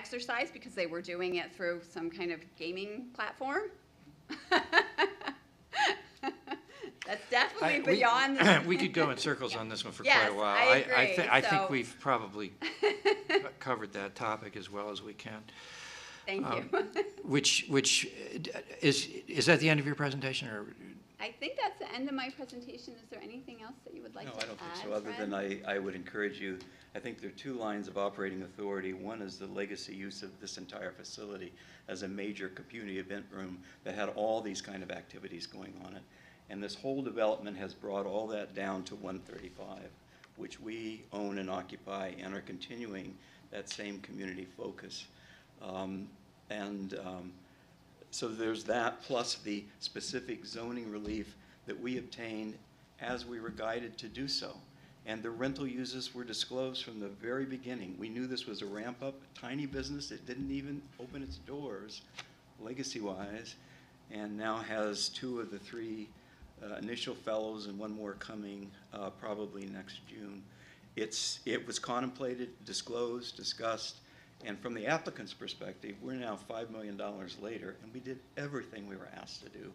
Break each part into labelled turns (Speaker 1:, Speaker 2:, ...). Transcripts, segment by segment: Speaker 1: exercise because they were doing it through some kind of gaming platform. That's
Speaker 2: I-
Speaker 1: definitely
Speaker 2: we-
Speaker 1: beyond.
Speaker 2: We could go in circles on this one for quite
Speaker 1: Yes,
Speaker 2: a while.
Speaker 1: I
Speaker 2: I, thi-
Speaker 1: agree,
Speaker 2: I think
Speaker 1: so-
Speaker 2: we've probably covered that topic as well as we can.
Speaker 1: Thank
Speaker 2: Um,
Speaker 1: you.
Speaker 2: Which, which, uh, d- is, is that the end of your presentation, or?
Speaker 1: I think that's the end of my presentation. Is there anything else that you would like
Speaker 3: No,
Speaker 1: to add?
Speaker 3: I don't think so, other
Speaker 1: Fred?
Speaker 3: than I, I would encourage you, I think there are two lines of operating authority. One is the legacy use of this entire facility as a major community event room that had all these kind of activities going on it. And this whole development has brought all that down to one thirty-five, which we own and occupy and are continuing that same community focus. Um, And um, so there's that, plus the specific zoning relief that we obtained as we were guided to do so. And the rental uses were disclosed from the very beginning. We knew this was a ramp-up, tiny business that didn't even open its doors, legacy-wise, and now has two of the three uh, initial fellows and one more coming uh, probably next June. It's, it was contemplated, disclosed, discussed, and from the applicant's perspective, we're now $5 million later, and we did everything we were asked to do.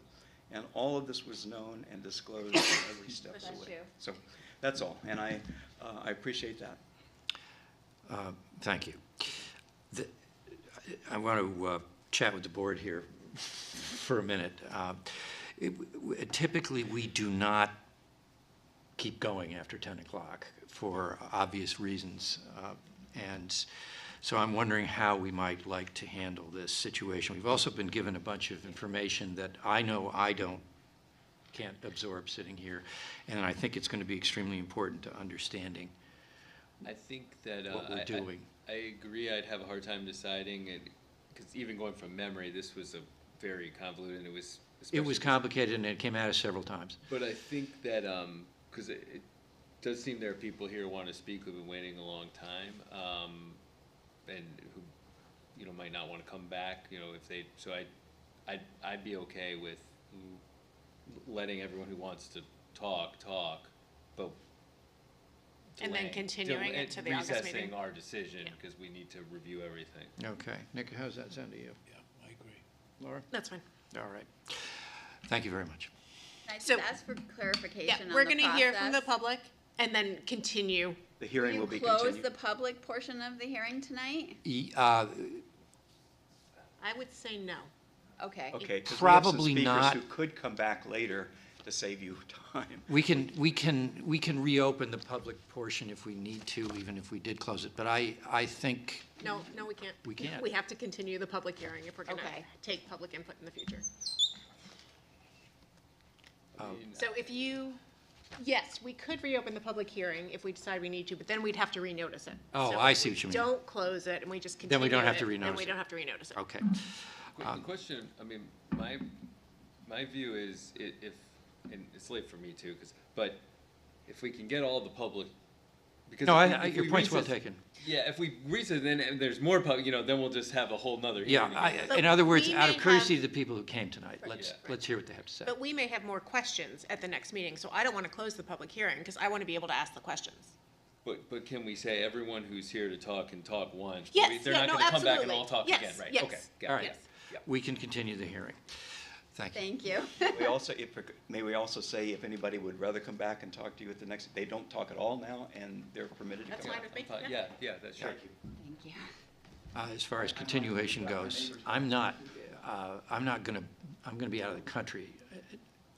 Speaker 3: And all of this was known and disclosed every step of the way.
Speaker 1: Bless you.
Speaker 3: So that's all, and I, uh, I appreciate that.
Speaker 2: Uh, Thank you. The- I- I want to uh, chat with the board here for a minute. Uh, it- w- Typically, we do not keep going after 10 o'clock for obvious reasons. uh, And so I'm wondering how we might like to handle this situation. We've also been given a bunch of information that I know I don't can't absorb sitting here, and I think it's going to be extremely important to understanding.
Speaker 4: I think that uh,
Speaker 2: what we're
Speaker 4: I- I-
Speaker 2: doing.
Speaker 4: I, agree. I'd have a hard time deciding, and because even going from memory, this was a very convoluted. and It was.
Speaker 2: It was
Speaker 4: especially-
Speaker 2: complicated and it came at us several times.
Speaker 4: But I think that because it, it does seem there are people here who want to speak who've been waiting a long time, um, and who you know might not want to come back. You know, if they so I, I'd I'd be okay with letting everyone who wants to talk talk, but.
Speaker 5: And then
Speaker 4: delaying-
Speaker 5: continuing
Speaker 4: del-
Speaker 5: it to the August meeting.
Speaker 4: Recessing our decision
Speaker 5: Yeah.
Speaker 4: because we need to review everything.
Speaker 2: Okay. Nick, how's that sound to you?
Speaker 6: Yeah, I agree.
Speaker 2: Laura?
Speaker 5: That's fine.
Speaker 2: All right. Thank you very much.
Speaker 1: Can I just
Speaker 5: So-
Speaker 1: ask for clarification
Speaker 5: Yeah,
Speaker 1: on the
Speaker 5: we're gonna hear from the
Speaker 1: process?
Speaker 5: public and then continue.
Speaker 3: The
Speaker 1: Do
Speaker 3: hearing
Speaker 1: you
Speaker 3: will be
Speaker 1: close
Speaker 3: continued.
Speaker 1: the public portion of the hearing tonight?
Speaker 2: E- uh,
Speaker 5: I would say no.
Speaker 1: Okay.
Speaker 3: Okay, 'cause we have some
Speaker 2: Probably
Speaker 3: speakers
Speaker 2: not.
Speaker 3: Who could come back later to save you time.
Speaker 2: We can, we can, we can reopen the public portion if we need to, even if we did close it. But I, I think,
Speaker 5: No, no, we can't.
Speaker 2: We can't.
Speaker 5: We have to continue the public hearing if we're gonna
Speaker 1: Okay.
Speaker 5: take public input in the future.
Speaker 2: Oh.
Speaker 4: I mean,
Speaker 5: So if you, yes, we could reopen the public hearing if we decide we need to, but then we'd have to renotice it.
Speaker 2: Oh,
Speaker 5: So
Speaker 2: I
Speaker 5: if
Speaker 2: see
Speaker 5: we
Speaker 2: what you mean.
Speaker 5: Don't close it and we just continue
Speaker 2: Then we don't have
Speaker 5: it,
Speaker 2: to
Speaker 5: Then
Speaker 2: renotice
Speaker 5: we
Speaker 2: it.
Speaker 5: don't have to renotice it.
Speaker 2: okay.
Speaker 4: Qu-
Speaker 2: Um,
Speaker 4: The question, I mean, my, my view is i- if, and it's late for me too, 'cause- but if we can get all the public, because.
Speaker 2: No,
Speaker 4: if we-
Speaker 2: I, I,
Speaker 4: if
Speaker 2: your
Speaker 4: we
Speaker 2: point's well
Speaker 4: recess-
Speaker 2: taken.
Speaker 4: Yeah, if we recess, then and there's more public, you know, then we'll just have a whole nother
Speaker 2: Yeah,
Speaker 4: hearing. again.
Speaker 2: I,
Speaker 5: But
Speaker 2: in other words,
Speaker 5: we
Speaker 2: out
Speaker 5: may
Speaker 2: of courtesy to
Speaker 5: have-
Speaker 2: the people who came tonight, let's,
Speaker 4: Yeah.
Speaker 2: let's hear what they have to say.
Speaker 5: But we may have more questions at the next meeting, so I don't wanna close the public hearing because I wanna be able to ask the questions.
Speaker 4: But, but can we say everyone who's here to talk can talk once? but we-
Speaker 5: Yes,
Speaker 4: They're
Speaker 5: yeah,
Speaker 4: not
Speaker 5: no,
Speaker 4: gonna come back and
Speaker 5: absolutely.
Speaker 4: all talk
Speaker 5: Yes,
Speaker 4: again, right?
Speaker 5: yes,
Speaker 4: Okay, got it.
Speaker 2: All right.
Speaker 5: Yes.
Speaker 2: We can continue the hearing. Thank you.
Speaker 1: Thank you.
Speaker 3: We also, if, may we also say if anybody would rather come back and talk to you at the next, they don't talk at all now, and they're permitted to come
Speaker 5: That's
Speaker 3: back.
Speaker 5: fine with me.
Speaker 4: Fine, Yeah, yeah, that's sure.
Speaker 1: Thank you.
Speaker 2: Uh, As far as continuation goes, I'm not, uh, I'm not going to, I'm going to be out of the country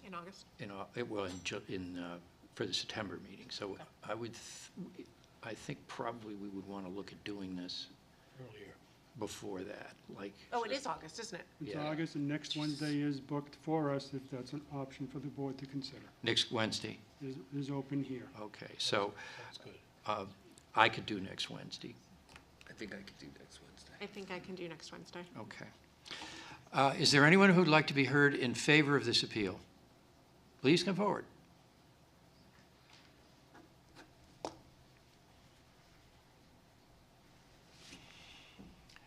Speaker 5: In August.
Speaker 2: in, Au- it will, in Ju- in, uh, for the September meeting. So I would, th- I think probably we would want to look at doing this
Speaker 6: Earlier.
Speaker 2: before that, like.
Speaker 5: Oh, it is August, isn't it?
Speaker 7: It's
Speaker 2: Yeah.
Speaker 7: August, and next Wednesday is booked for us, if that's an option for the board to consider,
Speaker 2: Next Wednesday,
Speaker 7: is, is open here.
Speaker 2: okay. So
Speaker 6: That's good.
Speaker 2: uh, I could do next Wednesday,
Speaker 4: I think I could do next Wednesday.
Speaker 5: I think I can do next Wednesday.
Speaker 2: okay. Uh, Is there anyone who'd like to be heard in favor of this appeal? Please come forward.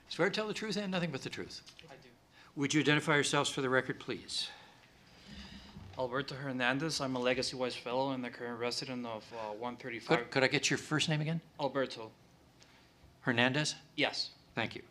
Speaker 2: Swear to tell the truth and nothing but the truth.
Speaker 8: I do.
Speaker 2: Would you identify yourselves for the record, please?
Speaker 8: Alberto Hernandez. I'm a Legacy Wise Fellow and the current resident of uh, 135.
Speaker 2: Could, could I get your first name again?
Speaker 8: Alberto.
Speaker 2: Hernandez?
Speaker 8: Yes.
Speaker 2: Thank you.